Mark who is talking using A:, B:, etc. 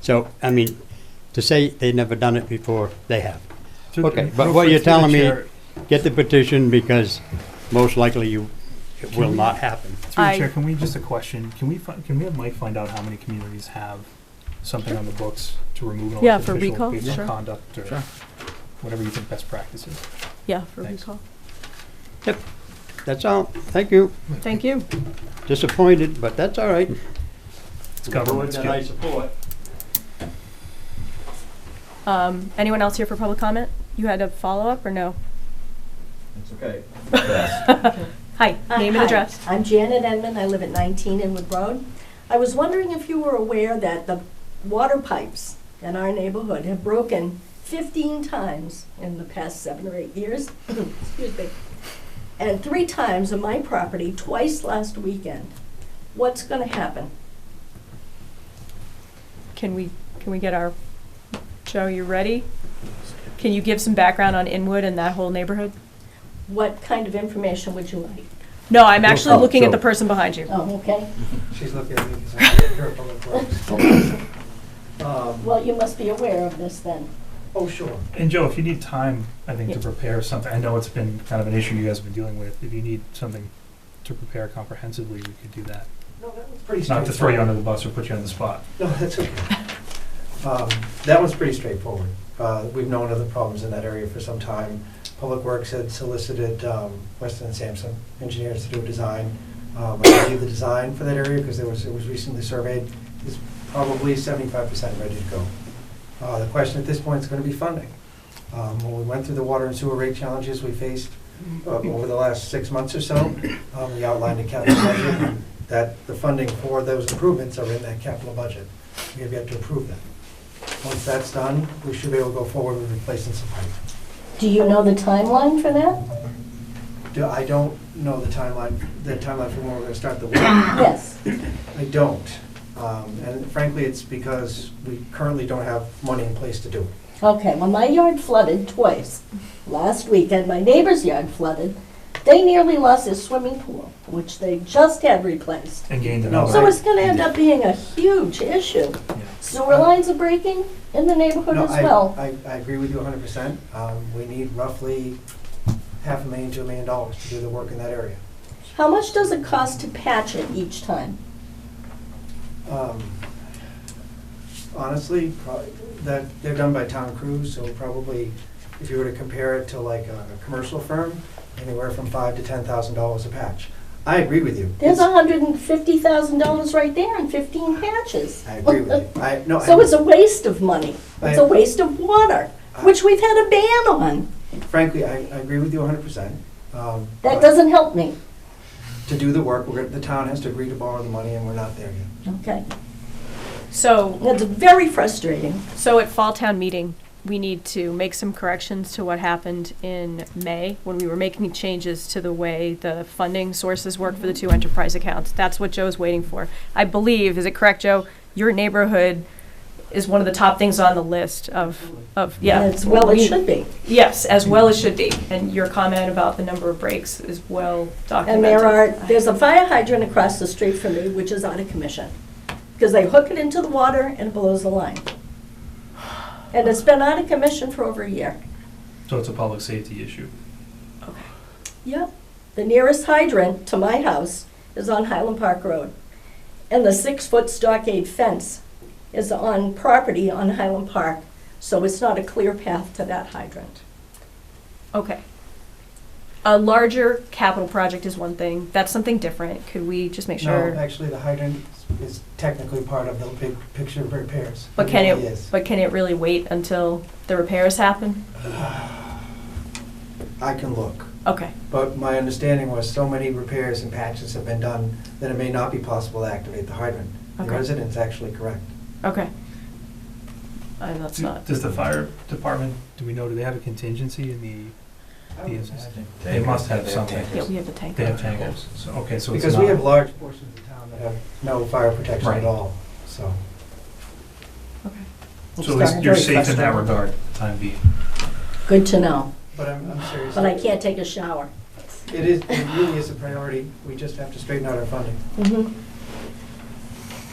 A: So, I mean, to say they've never done it before, they have.
B: Through-
A: Okay, but
B: real
A: what
B: quick
A: you're
B: through the
A: telling me,
B: chair-
A: get the petition because most likely you, it will not happen.
B: Through the
C: I-
B: chair, can we, just a question, can we, fi- can we have Mike find out how many communities have something on the books to remove an
C: Yeah,
B: elected
C: for
B: official
C: recall,
B: based on
C: sure.
B: conduct or
D: Sure.
B: whatever you think best practice is?
C: Yeah, for
B: Thanks.
C: recall.
A: That's all. Thank you.
C: Thank you.
A: Disappointed, but that's all right.
B: It's government, it's good.
A: support.
C: Um, anyone else here for public comment? You had a follow-up or no?
E: It's okay.
C: Hi,
F: Hi,
C: name and
F: Uh, hi.
C: address.
F: I'm Janet Enman, I live at 19 Inwood Road. I was wondering if you were aware that the water pipes in our neighborhood have broken 15 times in the past seven or eight years. Excuse me. And three times on my property, twice last weekend. What's going to happen?
C: Can we, can we get our, Joe, you ready? Can you give some background on Inwood and that whole neighborhood?
F: What kind of information would you like?
C: No, I'm actually
D: Oh,
C: looking at
D: Joe.
C: the person behind you.
F: Oh, okay.
G: She's looking at me because I'm here public works. Um,
F: Well, you must be aware of this then.
G: Oh, sure.
B: And Joe, if you need time, I think, to
C: Yeah.
B: prepare something, I know it's been kind of an issue you guys have been dealing with, if you need something to prepare comprehensively, we could do that.
G: No, that was pretty straightforward.
B: Not to throw you under the bus or put you on the spot.
G: No, that's okay. Um, That one's pretty straightforward. Uh, We've known of the problems in that area for some time. Public Works had solicited um, Weston and Sampson engineers to do a design. Um, I gave the design for that area because there was, it was recently surveyed. It's probably seventy-five percent ready to go. Uh, The question at this point is going to be funding. Um, When we went through the water and sewer rate challenges we faced uh, over the last six months or so, um, we outlined a capital budget and that the funding for those improvements are in that capital budget. We have yet to approve that. Once that's done, we should be able to go forward with replacing some pipe.
F: Do you know the timeline for that?
G: Do, I don't know the timeline, the timeline for when we're gonna start the work.
F: Yes.
G: I don't. Um, and frankly, it's because we currently don't have money in place to do it.
F: Okay, well, my yard flooded twice. Last weekend, my neighbor's yard flooded. They nearly lost their swimming pool, which they just had replaced.
B: And gain the
G: No,
B: knowledge.
F: So it's gonna end up being a huge issue. Sewer lines are breaking in the neighborhood
G: No,
F: as
G: I-
F: Oh, well.
G: I, I agree with you hundred percent. Um, we need roughly half a million to a million dollars to do the work in that area.
F: How much does it cost to patch it each time?
G: Um, Honestly, probably, that, they're done by town crews, so probably, if you were to compare it to like a a commercial firm, anywhere from five to ten thousand dollars a patch. I agree with you.
F: There's
G: It's-
F: hundred and fifty thousand dollars right there and fifteen patches.
G: I agree with you. I, no, I.
F: So it's a waste of money. It's a
G: I- Uh,
F: waste of water, which we've had a ban on.
G: Frankly, I, I agree with you hundred percent. Um,
F: That doesn't help me,
G: To do the work, we're, gonna- the town has to agree to borrow the money, and we're not there yet.
F: okay?
C: So,
F: That's very frustrating.
C: so at Fall Town Meeting, we need to make some corrections to what happened in May when we were making changes to the way the funding sources work for the two enterprise accounts. That's what Joe's waiting for. I believe, is it correct, Joe? Your neighborhood is one of the top things on the list of, of, yeah.
F: As well it
C: We-
F: should be.
C: Yes, as well as should be. And your comment about the number of breaks is well
F: And
C: documented.
F: there are, there's a fire hydrant across the street from me, which is out of commission. Because they hook it into the water and it blows the line. And it's been out of commission for over a year.
B: So it's a public safety issue.
F: Yep. The nearest hydrant to my house is on Highland Park Road. And the six-foot stockade fence is on property on Highland Park, so it's not a clear path to that hydrant.
C: Okay. A larger capital project is one thing. That's something different. Could we just make
G: No,
C: sure?
G: actually, the hydrant is technically part of the big picture of repairs.
C: But can
G: really
C: it,
G: is.
C: but can it really wait until the repairs happen?
G: I can look.
C: Okay,
G: But my understanding was so many repairs and patches have been done that it may not be possible to activate the hydrant. The
C: Okay.
G: resident's actually correct.
C: okay. I know that's not,
B: Does the fire department, do we know, do they have a contingency in the, Yes. They must have something.
C: yeah, we have the tank.
B: they have tangles? So, okay, so it's
G: Because we have
B: not,
G: large portions of town that have no fire protection
B: Right.
G: at all, so.
C: Okay.
F: It's
B: so at least
F: very
B: you're safe in that
F: frustrating.
B: regard, time being.
F: Good to know,
G: But I'm, I'm serious.
F: but I can't take a shower.
G: It is, it really is a priority. We just have to straighten out our funding.
F: Mhm.